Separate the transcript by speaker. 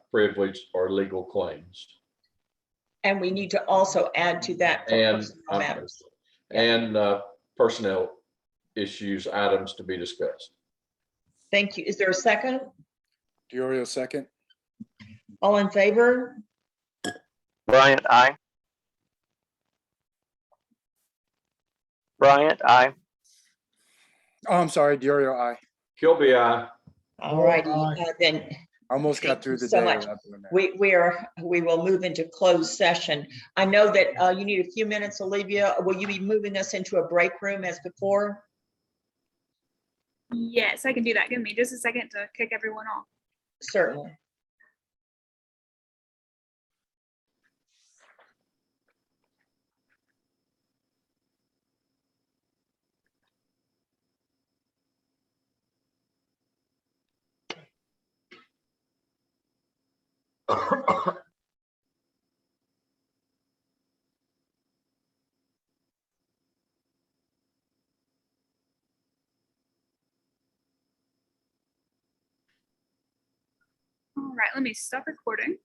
Speaker 1: privileged or legal claims.
Speaker 2: And we need to also add to that for
Speaker 1: And,
Speaker 2: personnel matters.
Speaker 1: And uh, personnel issues, items to be discussed.
Speaker 2: Thank you. Is there a second?
Speaker 3: Diorio, second.
Speaker 2: All in favor?
Speaker 4: Bryant, aye. Bryant, aye.
Speaker 3: Oh, I'm sorry, Diorio, I
Speaker 1: Kilby, I,
Speaker 2: All righty, uh, then
Speaker 3: almost got
Speaker 2: Thank you
Speaker 3: through the
Speaker 2: so
Speaker 3: day.
Speaker 2: much.
Speaker 3: without doing that.
Speaker 2: we, we are, we will move into closed session. I know that uh, you need a few minutes, Olivia. Will you be moving us into a break room as before?
Speaker 5: Yes, I can do that. Give me just a second to kick everyone off.
Speaker 2: Certainly.
Speaker 5: All right, let me stop recording.